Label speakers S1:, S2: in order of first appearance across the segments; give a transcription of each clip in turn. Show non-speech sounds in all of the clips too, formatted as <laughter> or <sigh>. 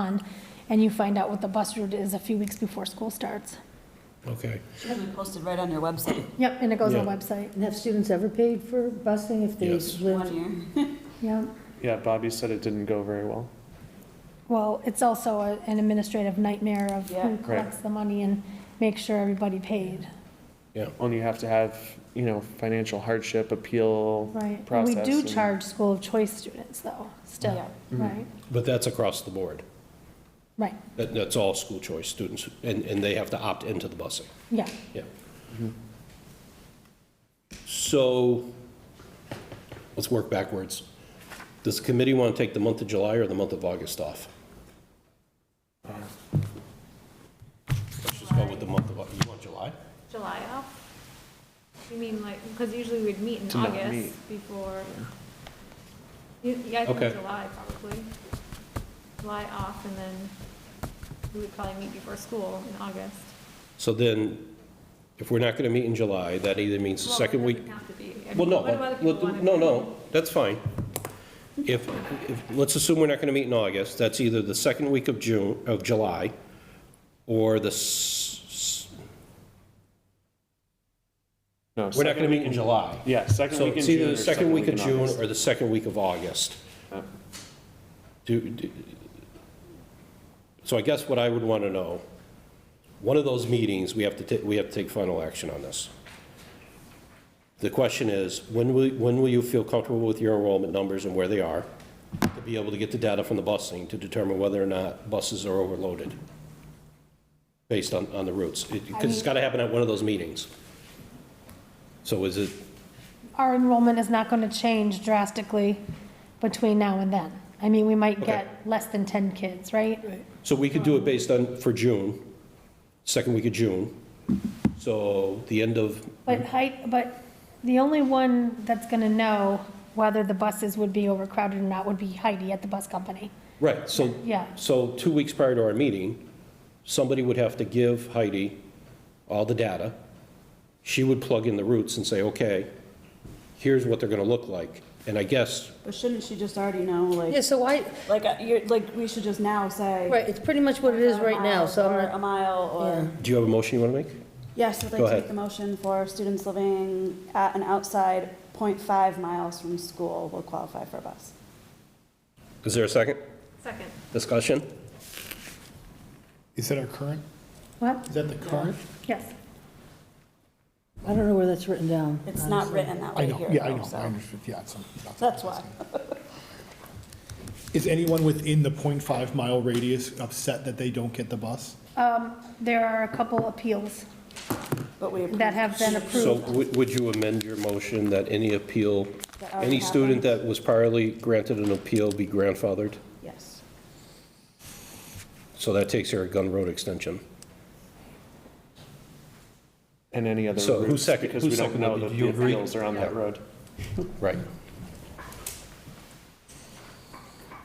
S1: on, and you find out what the bus route is a few weeks before school starts.
S2: Okay,
S3: Should be posted right on your
S4: <coughs>
S3: website,
S1: Yep, and it goes on the
S2: Yeah.
S1: website,
S5: And have students ever paid for busing if they
S2: Yes.
S5: lived?
S3: one year.
S1: yeah.
S6: Yeah, Bobby said it didn't go very well.
S1: Well, it's also a- an administrative nightmare of
S3: Yeah.
S1: who
S6: Right.
S1: collects the money and makes sure everybody paid,
S6: Only you have to have, you know, financial hardship appeal.
S1: right? And we
S6: Process
S1: do
S6: and- Mm-hmm.
S1: charge school of choice students though, still,
S3: Yeah.
S1: right?
S2: but that's across the board.
S1: Right,
S2: That, that's all school choice students, and, and they have to opt into the busing,
S1: yeah.
S2: yeah. So, let's work backwards. Does the committee want to take the month of July or the month of August off? Let's just go with the month of, Au- you want July?
S7: July off? You mean like, because usually we'd meet in
S6: To not
S7: August
S6: meet.
S7: before. You- Yeah, I
S2: Okay.
S7: think July probably. July off and then we would probably meet before school in August.
S2: So then, if we're not going to meet in July, that either means the
S7: Well,
S2: second
S7: it
S2: week.
S7: doesn't have to be. I
S2: Well,
S7: mean,
S2: no,
S7: what do other
S2: well,
S7: people wanna
S2: no,
S7: do?
S2: no, that's fine. If, if, let's assume we're not going to meet in August, that's either the second week of June, of July, or the, s-
S6: No,
S2: s- we're not going
S6: second
S2: to meet in July.
S6: Yeah, second
S2: So
S6: week in
S2: it's
S6: June.
S2: either
S6: or
S2: the second week of
S6: in
S2: June
S6: August.
S2: or the second week of August.
S6: Yep.
S2: Do, do- so I guess what I would want to know, one of those meetings, we have to, ta- we have to take final action on this. The question is, when will, when will you feel comfortable with your enrollment numbers and where they are? To be able to get the data from the busing to determine whether or not buses are overloaded based on, on the routes. Because it's got to happen at one of those meetings. So is it,
S1: Our enrollment is not gonna change drastically between now and then. I mean, we might
S2: Okay.
S1: get less than ten kids, right?
S2: So we could do it based on, for June, second week of June. So the end of,
S1: But height, but the only one that's gonna know whether the buses would be overcrowded or not would be Heidi at the bus company.
S2: right, so,
S1: Yeah,
S2: so two weeks prior to our meeting, somebody would have to give Heidi all the data. She would plug in the routes and say, okay, here's what they're gonna look like. And I guess,
S4: But shouldn't she just already know, like,
S5: Yeah, so I,
S4: like, uh, you're, like, we should just now say.
S5: right, it's pretty much what it is right now, so I'm
S4: Or a
S5: not,
S4: mile, or,
S2: do you have a motion you wanna make?
S4: yes, I'd
S2: Go
S4: like to
S2: ahead.
S4: make the motion for students living at and outside 0.5 miles from school will qualify for a bus.
S2: Is there a second?
S7: Second.
S2: Discussion?
S8: Is that our current?
S1: what?
S8: Is that the current?
S1: Yes.
S5: I don't know where that's written down.
S4: It's not
S5: honestly.
S4: written that
S8: I
S4: way
S8: know,
S4: here.
S8: yeah, I
S4: though,
S8: know,
S4: so
S8: I understood, yeah. it's on- it's on-
S4: That's why.
S8: Is anyone within the 0.5 mile radius upset that they don't get the bus?
S1: Um, there are a couple appeals
S4: But we,
S1: that have been
S2: So
S1: approved.
S2: would would you amend your motion that any appeal,
S4: That already
S2: any student
S4: happened.
S2: that was priorly granted an appeal be grandfathered?
S4: yes.
S2: So that takes care of Gun Road extension.
S6: And any other
S2: So who
S6: routes,
S2: second-
S6: because
S2: who
S6: we don't
S2: seconded
S6: know
S2: it?
S6: that
S2: Do you
S6: the
S2: agree?
S6: appeals are on that
S2: Yeah.
S6: road.
S2: Right.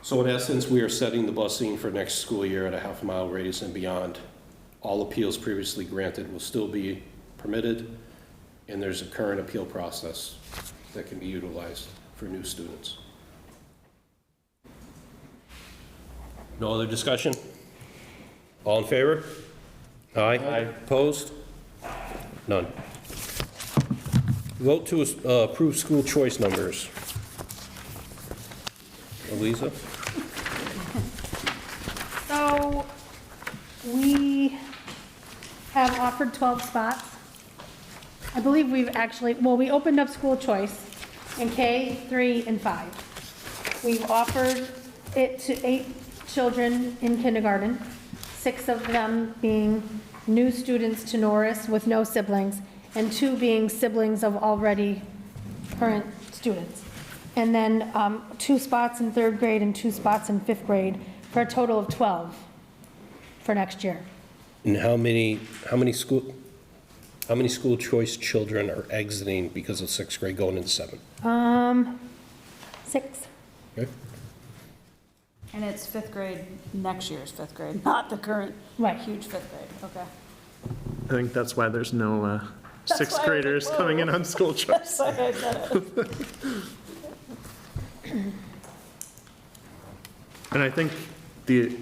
S2: So in essence, we are setting the busing for next school year at a half mile radius and beyond. All appeals previously granted will still be permitted, and there's a current appeal process that can be utilized for new students. No other discussion? All in favor? Aye. Opposed? None. Vote to uh, approve school choice numbers. Eliza?
S1: So we have offered 12 spots. I believe we've actually, well, we opened up school choice in K, 3, and 5. We've offered it to eight children in kindergarten, six of them being new students to Norris with no siblings, and two being siblings of already current students. And then um, two spots in third grade and two spots in fifth grade, for a total of 12 for next year.
S2: And how many, how many school, how many school choice children are exiting because of sixth grade going into seventh?
S1: Um, Six.
S2: Okay.
S3: And it's fifth grade, next year's fifth
S4: <laughs>
S3: grade, not the current
S1: Right.
S3: huge fifth grade, okay.
S6: I think that's why there's no uh,
S3: That's why I was
S6: sixth
S3: like,
S6: graders coming in on school choice.
S3: That's why I said it.
S6: And I think the,